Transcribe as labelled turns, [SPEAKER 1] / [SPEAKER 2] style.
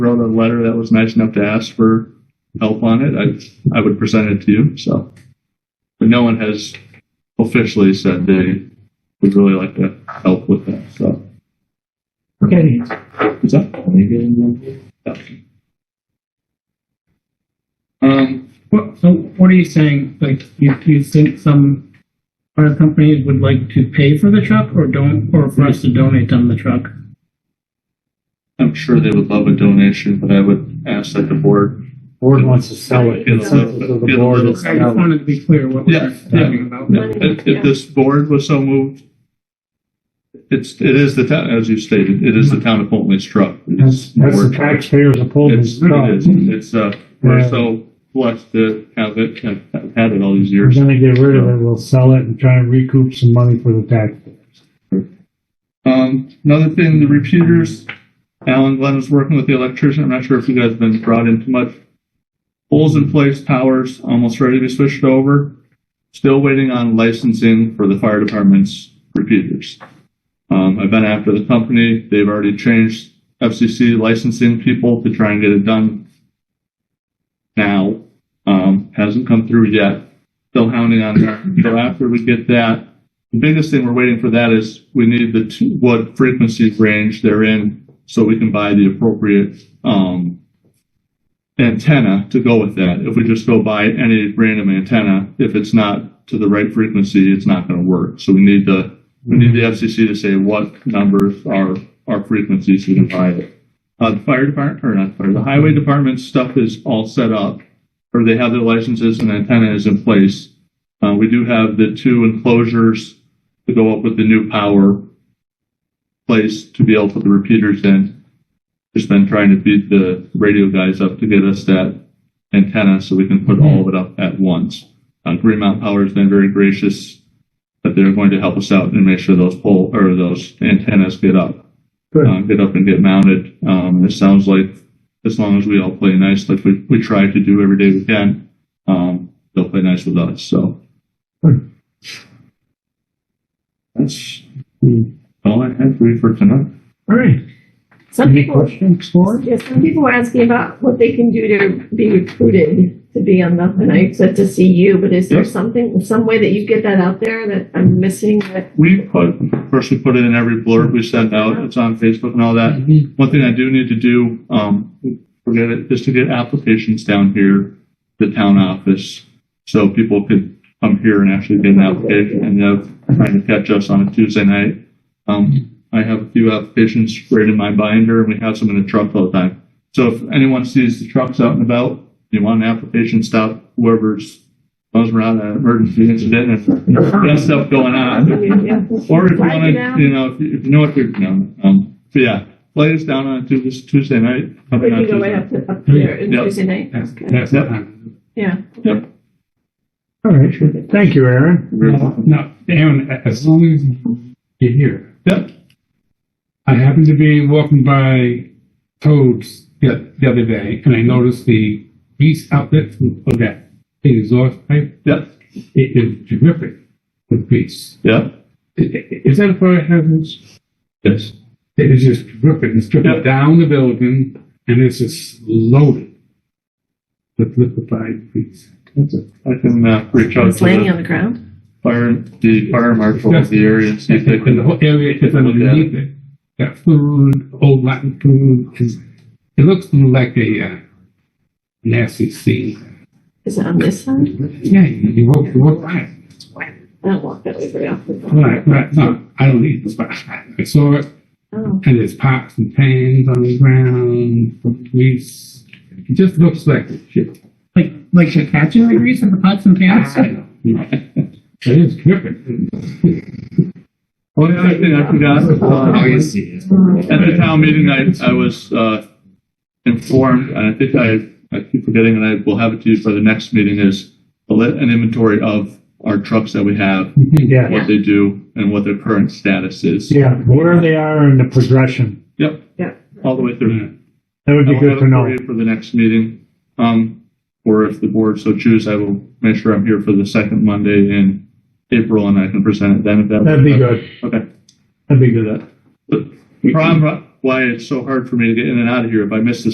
[SPEAKER 1] wrote a letter that was nice enough to ask for help on it, I, I would present it to you, so. But no one has officially said they would really like to help with that, so.
[SPEAKER 2] Okay.
[SPEAKER 1] What's up?
[SPEAKER 2] Um, what, so what are you saying? Like, you, you think some other companies would like to pay for the truck or don't, or for us to donate them the truck?
[SPEAKER 1] I'm sure they would love a donation, but I would ask that the board.
[SPEAKER 3] Board wants to sell it.
[SPEAKER 1] Get a
[SPEAKER 3] Consensus
[SPEAKER 1] little-
[SPEAKER 3] of
[SPEAKER 1] get
[SPEAKER 3] the
[SPEAKER 1] a
[SPEAKER 3] board
[SPEAKER 1] little-
[SPEAKER 3] is
[SPEAKER 2] I just
[SPEAKER 3] sell it.
[SPEAKER 2] wanted to be clear what
[SPEAKER 1] Yeah,
[SPEAKER 2] we're
[SPEAKER 1] yeah.
[SPEAKER 2] talking about.
[SPEAKER 1] If, if this board was so moved, it's, it is the town, as you stated, it is the town of Polley's truck. It
[SPEAKER 3] That's
[SPEAKER 1] is
[SPEAKER 3] that's
[SPEAKER 1] board
[SPEAKER 3] the
[SPEAKER 1] truck.
[SPEAKER 3] taxpayers of Pullman's
[SPEAKER 1] It's, it
[SPEAKER 3] truck.
[SPEAKER 1] is, it's, uh, we're so blessed to have it, have have had it all these
[SPEAKER 3] We're
[SPEAKER 1] years.
[SPEAKER 3] gonna get rid of it, we'll sell it and try and recoup some money for the taxpayers.
[SPEAKER 1] Um, another thing, the repeaters, Alan Glenn is working with the electrician. I'm not sure if you guys have been brought into much. Poles in place, towers almost ready to be switched over. Still waiting on licensing for the fire department's repeaters. Um, I've been after the company. They've already changed FCC licensing people to try and get it done now. Um, hasn't come through yet. Still hounding on that. So after we get that, the biggest thing we're waiting for that is we need the two, what frequency range they're in so we can buy the appropriate um, antenna to go with that. If we just go buy any random antenna, if it's not to the right frequency, it's not going to work. So we need the we need the FCC to say what numbers are are frequencies we can buy it. Uh, the fire department or not fire, the highway department stuff is all set up, or they have their licenses and antenna is in place. Uh, we do have the two enclosures to go up with the new power place to be able to put the repeaters in. Just been trying to beat the radio guys up to get us that antenna so we can put all of it up at once. Uh, Green Mountain Power has been very gracious that they're going to help us out and make sure those pole or those antennas get up, uh, get up and get mounted. Um, it sounds like as long as we all play nice, like we, we try to do every day we can, um, they'll play nice with us. So
[SPEAKER 3] Good.
[SPEAKER 1] that's all I have for you for tonight.
[SPEAKER 3] All right,
[SPEAKER 4] Some
[SPEAKER 3] any
[SPEAKER 4] people,
[SPEAKER 3] questions for it?
[SPEAKER 4] yeah, some people are asking about what they can do to be recruited to be on the, and I said to see you, but is there
[SPEAKER 1] Yep.
[SPEAKER 4] something, some way that you get that out there that I'm missing that?
[SPEAKER 1] We put, of course, we put it in every blurb we send out. It's on Facebook and all that. One thing I do need to do, um, forget it, is to get applications down here, the town office. So people could come here and actually get an application and have, trying to catch us on a Tuesday night. Um, I have a few applications right in my binder and we have some in the truck all the time. So if anyone sees the trucks out and about, you want an application, stop whoever's, those around an emergency incident and that stuff going on.
[SPEAKER 4] Yeah.
[SPEAKER 1] Uh, Or if you
[SPEAKER 4] Flag
[SPEAKER 1] want
[SPEAKER 4] it
[SPEAKER 1] to,
[SPEAKER 4] down.
[SPEAKER 1] you know, if you if you know what you're, no, um, but yeah, flag us down on Tuesday, Tuesday night.
[SPEAKER 4] We
[SPEAKER 1] coming on
[SPEAKER 4] can go right
[SPEAKER 1] Tuesday.
[SPEAKER 4] up to, up there in
[SPEAKER 1] Yep.
[SPEAKER 4] Tuesday night. Okay.
[SPEAKER 3] That's it.
[SPEAKER 4] Yeah.
[SPEAKER 1] Yep.
[SPEAKER 3] All right, sure. thank you, Aaron. Uh,
[SPEAKER 1] Very well.
[SPEAKER 5] No, Aaron, as long as you're here.
[SPEAKER 1] Yep.
[SPEAKER 5] I happened to be walking by Toad's the, the other day, and I noticed the grease outlet from- of that big exhaust pipe.
[SPEAKER 1] Yep.
[SPEAKER 5] It is terrific with grease.
[SPEAKER 1] Yep.
[SPEAKER 5] I- i- Is that a fire hazard?
[SPEAKER 1] Yes.
[SPEAKER 5] It is just terrific. It's dripping
[SPEAKER 1] Yeah.
[SPEAKER 5] down the building, and it's just loaded with liquefied grease.
[SPEAKER 1] That's it. I can, uh, reach out to
[SPEAKER 4] It's laying on
[SPEAKER 1] the
[SPEAKER 4] the ground.
[SPEAKER 1] fire, the fire marshal of the area and see if they
[SPEAKER 5] And the
[SPEAKER 1] can.
[SPEAKER 5] whole area is underneath it. Got food, old Latin food. It's, it looks like a uh, nasty scene.
[SPEAKER 4] Is it on this side?
[SPEAKER 1] Mm-hmm.
[SPEAKER 5] Yeah, you you walk, you walk by. it.
[SPEAKER 4] I don't walk that way very often.
[SPEAKER 5] Right, right. No, I don't need this, but I saw it,
[SPEAKER 4] Oh,
[SPEAKER 5] and there's pots and pans on the ground, grease. It just looks like shit.
[SPEAKER 2] Like, like the catching the grease in the pots and pans?
[SPEAKER 5] It is dripping.
[SPEAKER 1] Well, the other thing Oh, I forgot, uh, at the town meeting, I, I was, uh, informed, and I think I, I keep forgetting, and I will have it to you for the next meeting, is a li- an inventory of our trucks that we have,
[SPEAKER 3] Yeah,
[SPEAKER 1] what they do, and what their current status is.
[SPEAKER 3] yeah, where they are in the progression,
[SPEAKER 1] Yep,
[SPEAKER 4] yeah.
[SPEAKER 1] all the way through.
[SPEAKER 3] that
[SPEAKER 1] I
[SPEAKER 3] would be
[SPEAKER 1] will
[SPEAKER 3] good
[SPEAKER 1] have
[SPEAKER 3] to
[SPEAKER 1] it
[SPEAKER 3] know.
[SPEAKER 1] for you For the next meeting, um, or if the board so choose, I will make sure I'm here for the second Monday in April and I can present it then if that.
[SPEAKER 3] That'd be good,
[SPEAKER 1] Okay.
[SPEAKER 3] that'd be good.
[SPEAKER 1] The problem why it's so hard for me to get in and out of here, if I miss the